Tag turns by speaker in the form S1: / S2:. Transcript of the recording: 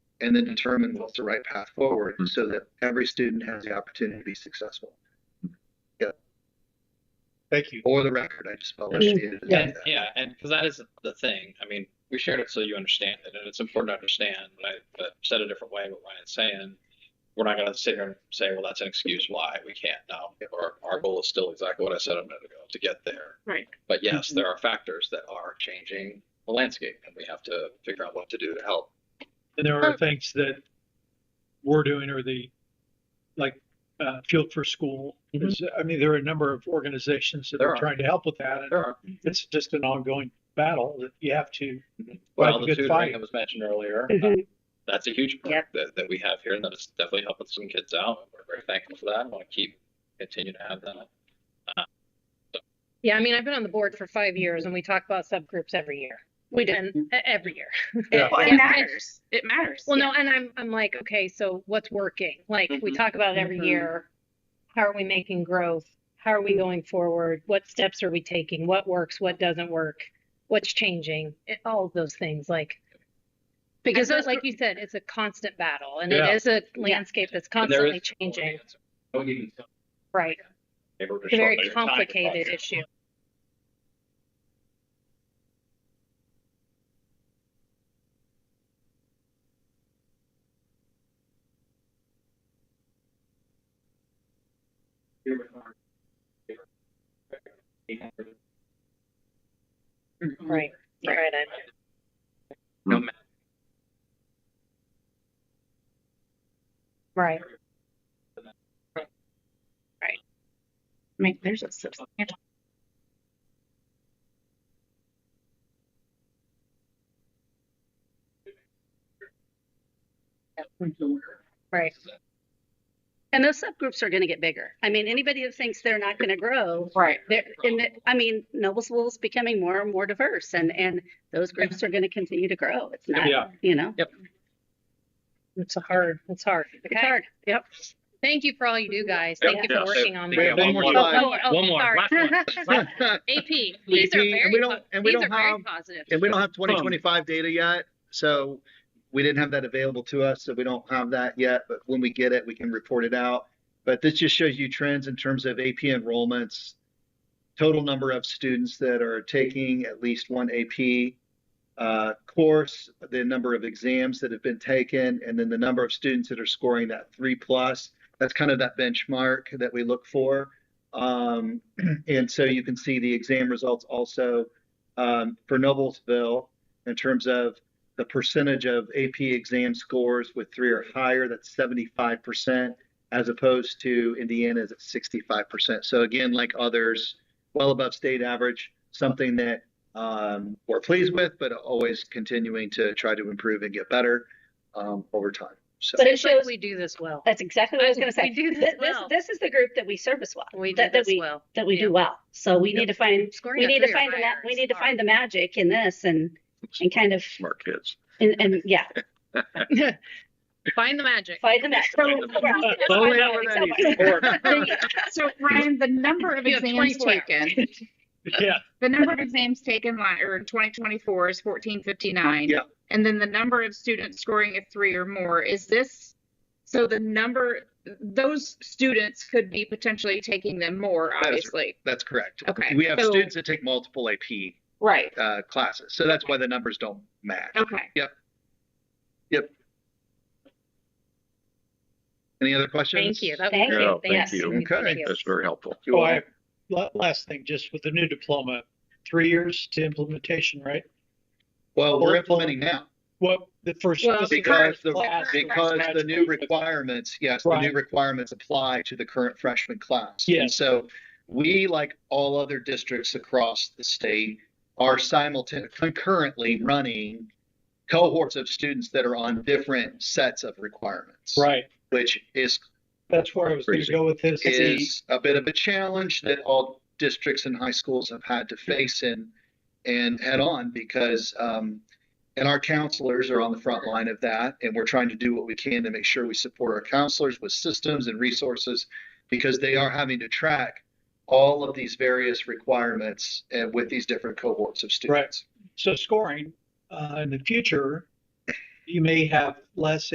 S1: and then determine what's the right path forward
S2: Hmm.
S1: so that every student has the opportunity to be successful.
S3: Thank you.
S1: Or the record, I just felt like
S4: Yeah.
S1: she needed to do
S4: Yeah.
S1: that.
S5: Yeah, and because that is the thing. I mean, we shared it so you understand it, and it's important to understand. But, I, but said a different way, what Ryan's saying, we're not going to sit here and say, well, that's an excuse why we can't. No, or our goal is still exactly what I said a minute ago to get there.
S4: Right. Mm-hmm.
S5: But yes, there are factors that are changing the landscape, and we have to figure out what to do to help.
S3: And there are things that we're doing or the, like, uh, Field for School. is- I mean, there are a number of organizations that
S5: There
S3: are
S5: are.
S3: trying to help with that. And
S5: There are
S3: it's just an ongoing battle that you have to,
S5: well,
S3: Like a
S5: the
S3: good
S5: tutoring
S3: fight.
S5: that was mentioned earlier. uh,
S4: Mhm.
S5: that's a huge part
S4: Yep.
S5: that, that we have here, and that is definitely helping some kids out. We're very thankful for that. I want to keep continue to have that.
S4: Yeah, I mean, I've been on the board for five years and we talk about subgroups every year. We do, and- e- every year.
S3: Yeah.
S6: Well,
S4: It
S6: it matters. It matters.
S4: Well, no, and I'm, I'm like, okay, so what's working? Like, we
S5: Mhm.
S4: talk about it every
S6: Mhm.
S4: year. How are we making growth? How are we going forward? What steps are we taking? What works? What doesn't work? What's changing? It, all of those things, like, because
S6: those
S4: like
S6: gr-
S4: you said, it's a constant battle and
S3: Yeah.
S4: it is a landscape that's
S5: And there
S4: constantly
S5: is no
S4: changing,
S5: answer. No even tell.
S4: right?
S5: They were
S4: It's a very
S5: short by your time,
S4: complicated
S5: but-
S4: issue.
S1: Mm-hmm.
S4: Right,
S6: Right.
S4: right. I-
S5: No matter
S4: Right.
S6: I mean, there's a substantial.
S4: Right.
S7: And those subgroups are going to get bigger. I mean, anybody that thinks they're not going to grow,
S6: Right.
S7: they're, and the, I mean, Noblesville is becoming more and more diverse, and and those groups are going to continue to grow. It's not,
S3: Yeah.
S7: you know,
S4: It's a hard, it's hard.
S7: it's hard. Yep.
S4: Thank you for all you do, guys. Thank you
S5: Yeah,
S4: for
S5: so-
S4: working on
S5: We
S1: We
S4: this.
S1: have one more
S5: Oh,
S1: slide.
S4: oh, oh,
S5: One more,
S4: sorry.
S5: last one.
S4: AP, these are
S1: AP, and
S4: very,
S1: we don't-
S4: po-
S1: and we
S4: these are
S1: don't
S4: very
S1: have-
S4: positive.
S1: And we don't have twenty twenty-five data yet, so we didn't have that available to us, so we don't have that yet, but when we get it, we can report it out. But this just shows you trends in terms of AP enrollments, total number of students that are taking at least one AP uh, course, the number of exams that have been taken, and then the number of students that are scoring that three plus. That's kind of that benchmark that we look for. Um, and so you can see the exam results also um, for Noblesville in terms of the percentage of AP exam scores with three or higher, that's 75%, as opposed to Indiana's at 65%. So, again, like others, well above state average, something that um, we're pleased with, but always continuing to try to improve and get better um, over time. So,
S7: But it
S4: It's like
S7: shows
S4: we do this well.
S7: that's exactly what I was going to
S4: We
S7: say.
S4: do this
S7: Th- This,
S4: well.
S7: this is the group that we service well.
S4: We do
S7: that,
S4: this
S7: that we
S4: well.
S7: that we
S4: Yeah.
S7: do well. So we
S4: Yep.
S7: need to find
S4: Scoring
S7: we
S4: a
S7: need to
S4: three or
S7: find the ma-
S4: higher
S7: we
S4: is
S7: need to
S4: hard.
S7: find the magic in this and and kind of
S2: Smart kids.
S7: and, and yeah
S4: Find the magic.
S7: find the magic.
S6: So,
S3: Oh, yeah,
S6: so Ryan, the number of
S4: You have
S6: exams
S4: 24 hours.
S6: taken,
S3: yeah,
S6: the number of exams taken la- or in 2024 is 1459.
S1: Yeah.
S6: And then the number of students scoring a three or more, is this, so the number, those students could be potentially taking them more,
S1: is-
S6: obviously.
S1: that's correct.
S6: Okay,
S1: We have
S6: so-
S1: students that take multiple AP
S6: Right.
S1: uh, classes, so that's why the numbers don't match.
S6: Okay.
S1: Any other questions?
S4: Thank you. That was
S7: Thank
S4: great.
S2: you. Thank
S4: Yes,
S2: you.
S1: Okay.
S4: thank you.
S2: That's very helpful.
S1: You're
S3: Oh,
S1: welcome.
S3: I, la- last thing, just with the new diploma, three years to implementation, right?
S1: Well, we're implementing now
S3: What, the first.
S4: Well,
S3: this is the
S1: because
S3: first
S1: the,
S3: class of
S1: because the new
S3: graduates.
S1: requirements, yes, the new
S3: Right.
S1: requirements apply to the current freshman class.
S3: Yes.
S1: And so we, like all other districts across the state, are simultaneously concurrently running cohorts of students that are on different sets of requirements.
S3: Right,
S1: Which is
S3: that's where I was going to
S2: Crazy.
S3: go with this.
S1: is a bit of a challenge that all districts and high schools have had to face and and head on because um, and our counselors are on the front line of that and we're trying to do what we can to make sure we support our counselors with systems and resources because they are having to track all of these various requirements and with these different cohorts of students.
S3: So scoring, uh, in the future, you may have less